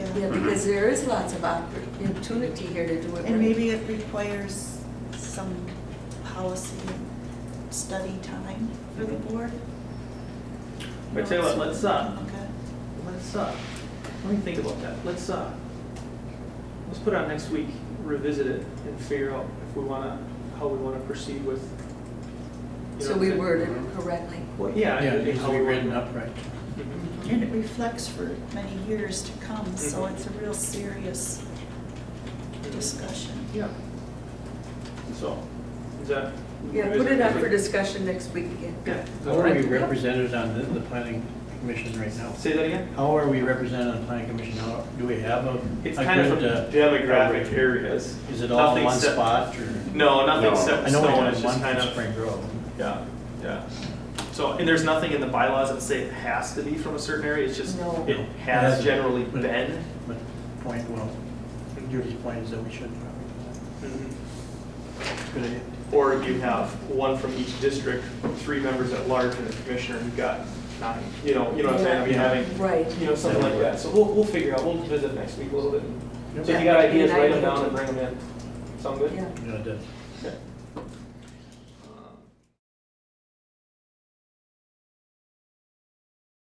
Yeah, Mm-hmm. Mm-hmm. because there is lots of opportunity here to do it. And maybe it requires some policy study time for the board? Mm-hmm. But tell you what, let's, uh, Okay. Let's, uh, let me think about that. Let's, uh, let's put out next week, revisit it and figure out if we wanna, how we wanna proceed with. you know, So we the- worded it correctly. Well, yeah. Yeah, and it needs to how be we wanna- written up right. Mhm. And it reflects for many years to come, so Mhm. it's a real serious Mm-hmm. discussion. Yeah. So, is that? Yeah, put it up for revisit discussion next week again. Yeah. How are we represented on the, the planning commission right now? Say that again? How are we represented on the planning commission now? Do we have a? It's a kind of good, uh, from demographic areas. Is it all in Nothing one set- spot or? No, nothing No. set I in know we stone, have it's one just kind from of, Spring Grove. yeah, yeah. So, and there's nothing in the bylaws that say it has to be from a certain area, it's just, No. it No, it has hasn't. generally But- been. But point well, Judy's point is that we should probably do Mhm. Mm-hmm. that. It's a Good idea. Or you have one from each district, three members at large and a commissioner, you've got nine, you know, you know what I'm saying? I mean, having, Right. you know, something like that. So we'll, we'll figure out, we'll visit next week a little bit. So if you Yeah. got ideas, write them down and bring them in. Sound good? Yeah. Yeah, it does. Okay.